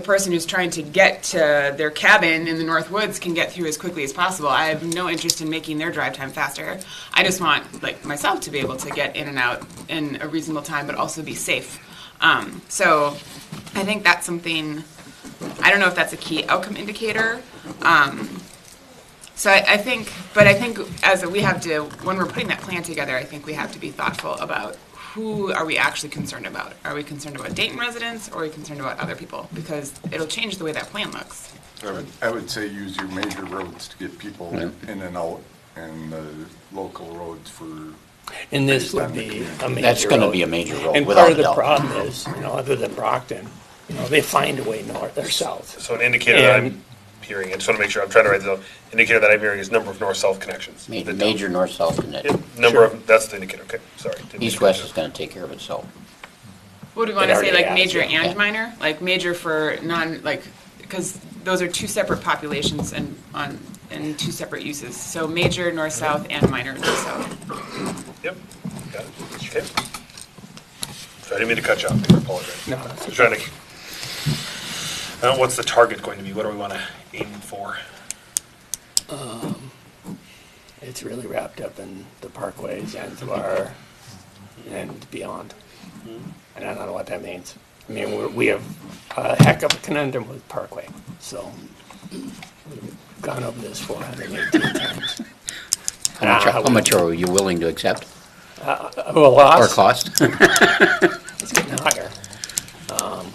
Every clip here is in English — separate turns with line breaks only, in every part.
the person who's trying to get to their cabin in the North Woods can get through as quickly as possible. I have no interest in making their drive time faster. I just want like myself to be able to get in and out in a reasonable time, but also be safe. Um, so I think that's something. I don't know if that's a key outcome indicator. Um, so I, I think, but I think as we have to, when we're putting that plan together, I think we have to be thoughtful about who are we actually concerned about? Are we concerned about Dayton residents or are we concerned about other people? Because it'll change the way that plan looks.
I would, I would say use your major roads to get people
Right.
in and out, and the local roads for,
And this would be a major.
That's gonna be a
road.
major road,
And
without
part
a
of the
doubt.
problem is, you know, other than Brockton, you know, they find a way north or south.
So an indicator that
And-
I'm hearing, I just want to make sure, I'm trying to write this down, indicator that I'm hearing is number of north-south connections.
Ma-
The-
Major north-south
Yeah,
connection.
Number of, that's the indicator, okay, sorry. Didn't mean to
East-west is
interrupt.
gonna take care of itself.
What do we want to say,
already
like
has,
major
yeah.
and minor? Like major for non, like, because those are two separate populations and on, and two separate uses. So major north-south and minor north-south.
Yep, got it, okay. So I didn't mean to cut you off, I apologize.
No, that's
Just Trying to, now what's the target going to be? What do we want to aim for?
It's really wrapped up in the parkways, Zanzibar, and beyond. And I don't know what that means. I mean, we're- we have a heck of a conundrum with Parkway, so we've gone over this 418 times.
How much,
Ah,
how much are you willing to accept?
Oh, a loss?
Or cost?
It's getting higher. Um,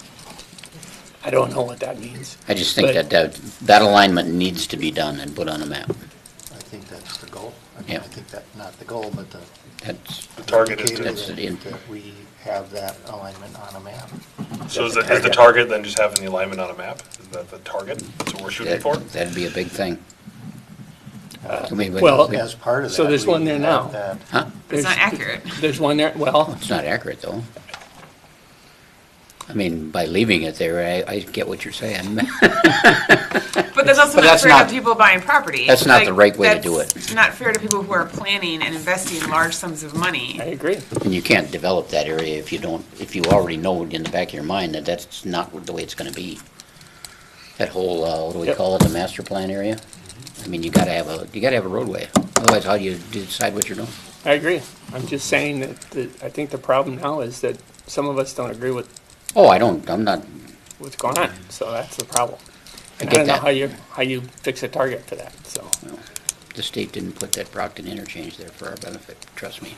I don't know what that means.
I just think
But-
that, that, that alignment needs to be done and put on a map.
I think that's the goal. I mean,
Yeah.
I think that, not the goal, but the.
That's,
The target is to,
indicator
That's
that-
the input.
That we have that alignment on a map.
so is the, is the target then just having the alignment on a map? Is that the target? That's what we're shooting
that-
for?
that'd be a big thing. I mean, we-
well-
we-
As part of that.
So there's
we
one there
have
now.
that-
Huh?
It's not
There's-
accurate.
There's one there, well,
It's not accurate, though. I mean, by leaving it there, I, I get what you're saying.
But that's also
But
not
that's
fair
not-
to people buying property.
that's not the
Like,
right way to do
that's
it.
Not fair to people who are planning and investing large sums of money.
I agree.
And you can't develop that area if you don't, if you already know in the back of your mind that that's not the way it's gonna be. That whole, uh, what do we
Yep.
call it, the master plan area? I mean, you gotta have a, you gotta have a roadway, otherwise how do you decide what you're doing?
I agree. I'm just saying that, the I think the problem now is that some of us don't agree with
Oh, I don't, I'm not,
what's going on, so that's the problem. And I
get
don't know
that.
how you, how you fix a target for that, so.
the state didn't put that Brockton interchange there for our benefit, trust me.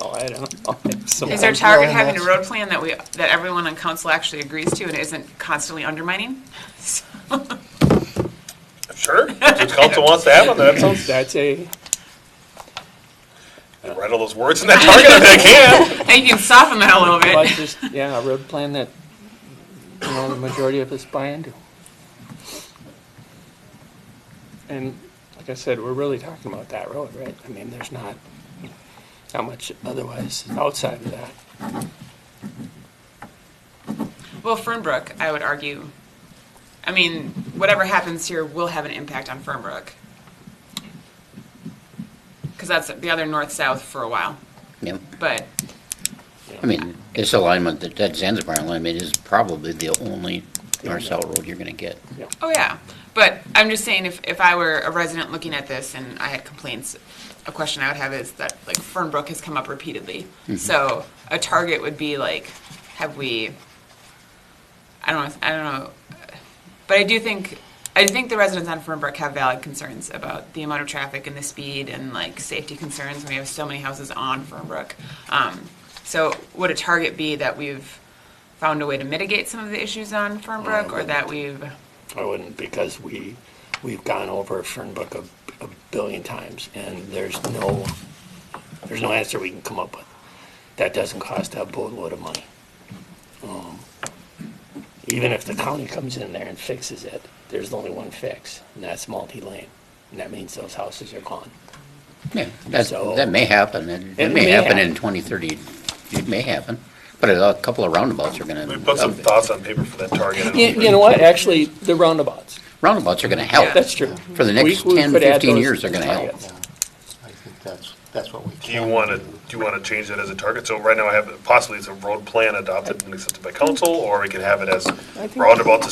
Oh, I don't know. It's
Is our
somewhat-
target
well,
having a
that's-
road plan that we, that everyone on council actually agrees to and isn't constantly undermining? So-
Sure, if the council wants to have it, that sounds,
That's a,
write all those words in that target if they can.
And you can soften that a little
well,
bit.
just, yeah, a road plan that, you know, the majority of us buy into. And like I said, we're really talking about that road, right? I mean, there's not, not much otherwise outside of that.
Well, Fernbrook, I would argue, I mean, whatever happens here will have an impact on Fernbrook. Because that's the other north-south for a while,
Yep,
but
I mean, this alignment, that, that Zanzibar alignment is probably the only north-south road you're gonna get.
Oh, yeah. But I'm just saying, if, if I were a resident looking at this and I had complaints, a question I would have is that, like, Fernbrook has come up repeatedly. So a target would be like, have we, I don't know, I don't know. But I do think, I think the residents on Fernbrook have valid concerns about the amount of traffic and the speed and like safety concerns. We have so many houses on Fernbrook. Um, so would a target be that we've found a way to mitigate some of the issues on Fernbrook or that we've?
I wouldn't because we, we've gone over Fernbrook a, a billion times and there's no, there's no answer we can come up with. That doesn't cost a boatload of money. Um, Even if the county comes in there and fixes it, there's only one fix and that's multi-lane. And that means those houses are gone.
Yeah, that's,
So-
that may happen, it,
It
it may
may
happen
happen.
in twenty thirty, it may happen, but a couple of roundabouts are gonna.
We put some
uh,
thoughts on paper for that target. and
You, you know what? Actually, the roundabouts,
Roundabouts are gonna help.
that's true.
For the next
We- we
10,
could add
15
those
years,
to
they're gonna
the
help.
targets.
I think that's, that's what we can.
Do you want to, do you want to change that as a target? So right now I have, possibly it's a road plan adopted and accepted by council, or we could have it as roundabout to